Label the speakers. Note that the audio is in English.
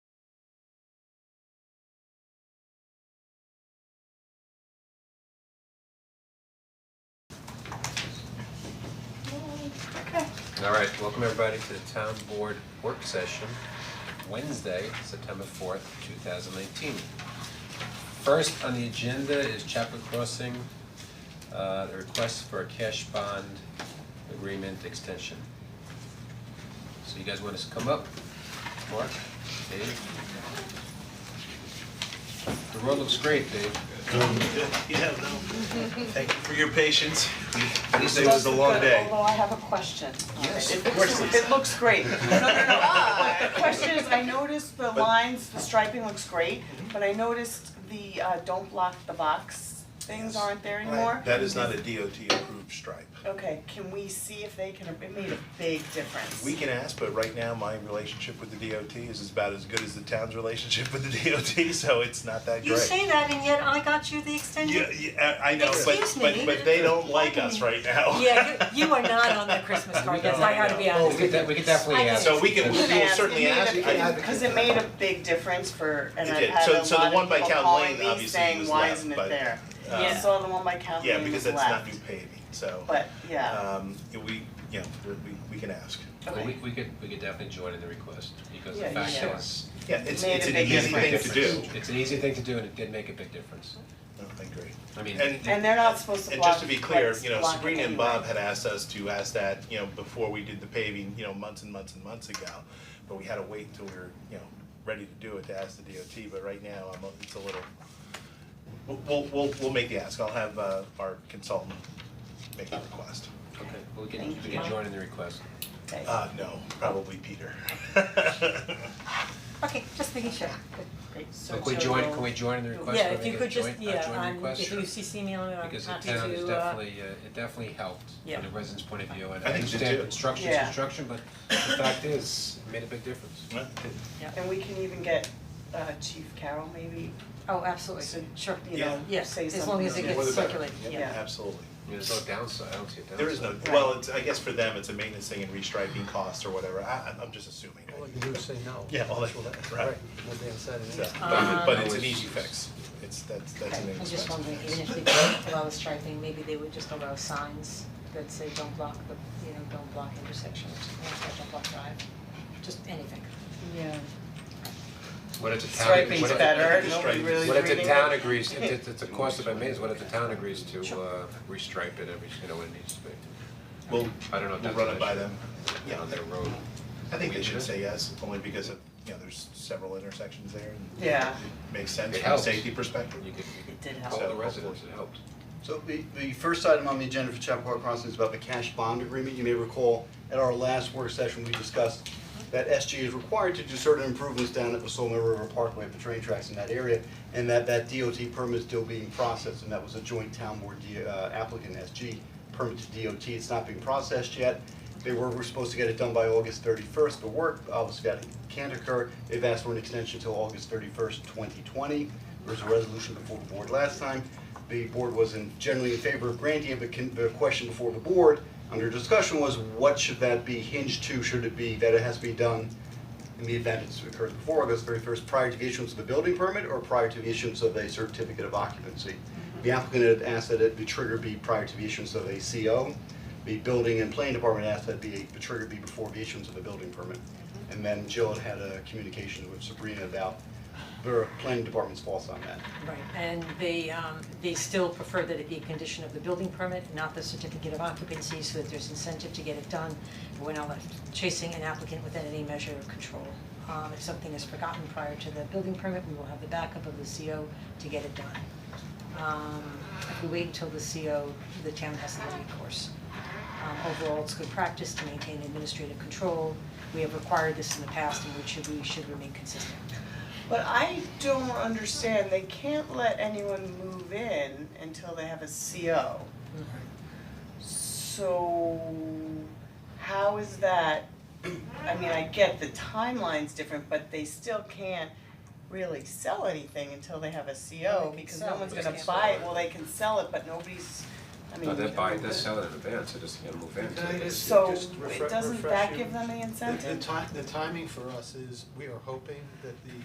Speaker 1: Alright, welcome everybody to the town board work session, Wednesday, September fourth, two thousand nineteen. First on the agenda is Chapel Crossing, uh, the request for a cash bond agreement extension. So you guys want us to come up? Mark, Dave? The road looks great, Dave.
Speaker 2: Yeah, no. Thank you for your patience.
Speaker 1: These
Speaker 2: It was
Speaker 1: days,
Speaker 2: a long day.
Speaker 3: Although I have a question.
Speaker 1: Yes,
Speaker 3: It
Speaker 2: of course,
Speaker 3: looks,
Speaker 2: Lisa.
Speaker 3: it looks great. No, no, no, but the question is, I noticed the lines, the striping looks great,
Speaker 2: Mm-hmm.
Speaker 3: but I noticed the uh don't block the box things aren't there anymore.
Speaker 2: That is not a DOT approved stripe.
Speaker 3: Okay, can we see if they can, it made a big difference.
Speaker 2: We can ask, but right now, my relationship with the DOT is about as good as the town's relationship with the DOT, so it's not that great.
Speaker 4: You say that and yet I got you the extension?
Speaker 2: Yeah, yeah, I I know, but
Speaker 4: Excuse
Speaker 2: but
Speaker 4: me.
Speaker 2: but they don't like us right now.
Speaker 4: Yeah, you, you are not on the Christmas card, that's, I gotta be
Speaker 1: oh, we
Speaker 4: honest
Speaker 1: could,
Speaker 4: with you.
Speaker 1: de- we could definitely
Speaker 4: I
Speaker 1: add.
Speaker 4: guess-
Speaker 2: So we can,
Speaker 3: You
Speaker 2: we
Speaker 3: can
Speaker 2: will
Speaker 3: ask,
Speaker 2: certainly
Speaker 3: it made
Speaker 2: ask,
Speaker 3: a
Speaker 2: I
Speaker 3: big, cause it made a big difference for, and
Speaker 2: It
Speaker 3: I
Speaker 2: did.
Speaker 3: had
Speaker 2: So-
Speaker 3: a lot
Speaker 2: so the one
Speaker 3: of
Speaker 2: by
Speaker 3: people
Speaker 2: Count
Speaker 3: calling
Speaker 2: Lane
Speaker 3: me
Speaker 2: obviously
Speaker 3: saying,
Speaker 2: was
Speaker 3: why
Speaker 2: left,
Speaker 3: isn't it
Speaker 2: but,
Speaker 3: there?
Speaker 2: uh,
Speaker 3: I saw the one by Count
Speaker 2: yeah,
Speaker 3: Lane
Speaker 2: because
Speaker 3: was
Speaker 2: that's not new
Speaker 3: left,
Speaker 2: paving, so.
Speaker 3: but yeah,
Speaker 2: Um, we, you know, we we can ask.
Speaker 1: Well,
Speaker 3: okay.
Speaker 1: we we could, we could definitely join in the request, because the
Speaker 3: Yeah,
Speaker 1: fact
Speaker 3: sure.
Speaker 1: is,
Speaker 2: Yeah, it's
Speaker 3: Made
Speaker 2: it's
Speaker 3: a
Speaker 2: an
Speaker 3: big
Speaker 2: easy thing
Speaker 3: difference.
Speaker 2: to do.
Speaker 1: It's an easy thing to do and it did make a big difference.
Speaker 2: I agree.
Speaker 1: I mean,
Speaker 2: And-
Speaker 3: And they're not supposed to
Speaker 2: And
Speaker 3: block,
Speaker 2: just to be clear,
Speaker 3: like,
Speaker 2: you know,
Speaker 3: block it
Speaker 2: Sabrina and
Speaker 3: anyway.
Speaker 2: Bob had asked us to ask that, you know, before we did the paving, you know, months and months and months ago. But we had to wait until we were, you know, ready to do it to ask the DOT, but right now, I'm, a- it's a little, we'll, we'll, we'll, we'll make the ask, I'll have, uh, our consultant make the request.
Speaker 1: okay, we can, we can join in the request.
Speaker 3: Okay.
Speaker 2: Uh, no, probably Peter.
Speaker 4: Okay, just making sure.
Speaker 3: Great, so
Speaker 1: So can we
Speaker 3: Joe
Speaker 1: join,
Speaker 3: will-
Speaker 1: can we join in the request?
Speaker 4: Yeah,
Speaker 1: Can
Speaker 4: if
Speaker 1: we
Speaker 4: you
Speaker 1: make a
Speaker 4: could just,
Speaker 1: joint- a
Speaker 4: yeah,
Speaker 1: join
Speaker 4: I'm,
Speaker 1: request?
Speaker 4: if you CC me on it, I'm happy
Speaker 1: Because
Speaker 4: to,
Speaker 1: the
Speaker 4: uh.
Speaker 1: town is definitely, uh, it definitely helped
Speaker 4: Yeah.
Speaker 1: from the residents' point of view, and
Speaker 2: I
Speaker 1: I
Speaker 2: think so
Speaker 1: understand
Speaker 2: too.
Speaker 1: construction's
Speaker 3: Yeah.
Speaker 1: construction, but the fact is, it made a big difference.
Speaker 2: Huh?
Speaker 3: And we can even get uh Chief Carroll maybe,
Speaker 4: Oh, absolutely,
Speaker 3: So-
Speaker 4: sure,
Speaker 3: you
Speaker 2: Yeah.
Speaker 3: know,
Speaker 4: yes,
Speaker 3: say something.
Speaker 4: as long as it
Speaker 2: Yeah, more
Speaker 4: gets
Speaker 2: the better.
Speaker 4: circulated, yeah.
Speaker 3: Yeah.
Speaker 2: Absolutely.
Speaker 1: I mean, There's no downside, I don't see a downside.
Speaker 2: There is no, well, it's, I guess for them, it's a maintenance thing and restriping costs or whatever, I, I'm- I'm just assuming.
Speaker 5: All you do is say no.
Speaker 2: Yeah, all that- right.
Speaker 5: We'll be inside an
Speaker 2: So,
Speaker 5: inch.
Speaker 2: but but it's an
Speaker 1: Um,
Speaker 2: easy fix, it's, that's, that's an
Speaker 4: Okay, I'm
Speaker 2: inexpensive
Speaker 4: just wondering,
Speaker 2: fix.
Speaker 4: even if they don't allow the striping, maybe they would just allow signs that say don't block the, you know, don't block intersection, or something like that, don't block drive, just anything.
Speaker 3: Yeah.
Speaker 1: What if the town, what
Speaker 3: Striping's
Speaker 1: if,
Speaker 3: better,
Speaker 2: Striping-
Speaker 3: nobody really
Speaker 1: what if the
Speaker 3: reading
Speaker 1: town
Speaker 3: it.
Speaker 1: agrees, if it's, it's a cost of a means, what if the town agrees to, uh, restripe it every, you know, when it needs to be?
Speaker 2: We'll,
Speaker 1: I don't know if
Speaker 2: we'll
Speaker 1: that's
Speaker 2: run
Speaker 1: an
Speaker 2: it by
Speaker 1: issue.
Speaker 2: them, yeah,
Speaker 1: on their road.
Speaker 2: I think they should
Speaker 1: Would you?
Speaker 2: say yes, only because of, you know, there's several intersections there and
Speaker 3: Yeah.
Speaker 2: it makes sense
Speaker 1: It
Speaker 2: from a
Speaker 1: helps.
Speaker 2: safety perspective.
Speaker 1: You could, you
Speaker 3: It did
Speaker 1: could
Speaker 3: help.
Speaker 1: call the
Speaker 2: So,
Speaker 1: residents, it
Speaker 2: hopefully.
Speaker 1: helped.
Speaker 6: So the, the first item on the agenda for Chappaqua Crossing is about the cash bond agreement. You may recall, at our last work session, we discussed that SG is required to do certain improvements down at the Soul Mill River Parkway for train tracks in that area, and that that DOT permit is still being processed, and that was a joint town board D- uh, applicant SG permit to DOT. It's not being processed yet. They were, were supposed to get it done by August thirty-first, but work obviously that can't occur. They've asked for an extension until August thirty-first, twenty twenty. There was a resolution before the board last time the board was in generally in favor of granting it, but can, the question before the board under discussion was what should that be hinged to, should it be that it has to be done in the event it's occurred before August thirty first, prior to the issuance of the building permit or prior to the issuance of a certificate of occupancy? The applicant had asked that it, the trigger be prior to the issuance of a CO. The building and planning department asked that the, the trigger be before the issuance of a building permit. And then Jill had had a communication with Sabrina about the planning department's thoughts on that.
Speaker 4: Right, and they um they still prefer that it be a condition of the building permit, not the certificate of occupancy, so that there's incentive to get it done. And we're not left chasing an applicant with any measure of control. Um if something is forgotten prior to the building permit, we will have the backup of the CO to get it done. Um if we wait until the CO, the town has the recourse. Um overall, it's good practice to maintain administrative control. We have required this in the past and we should we should remain consistent.
Speaker 3: But I don't understand, they can't let anyone move in until they have a CO. So how is that, I mean, I get the timeline's different, but they still can't really sell anything until they have a CO because no one's
Speaker 1: but they
Speaker 3: gonna
Speaker 1: can't
Speaker 3: buy
Speaker 1: sell
Speaker 3: it,
Speaker 1: it.
Speaker 3: well, they can sell it, but nobody's, I mean.
Speaker 1: No, they're buying, they're selling in advance, they're just gonna move in.
Speaker 5: Can I just-
Speaker 3: So
Speaker 5: refre-
Speaker 3: it doesn't
Speaker 5: refresh
Speaker 3: that
Speaker 5: you.
Speaker 3: give them the
Speaker 5: The, the
Speaker 3: incentive?
Speaker 5: ti- the timing for us is, we are hoping that the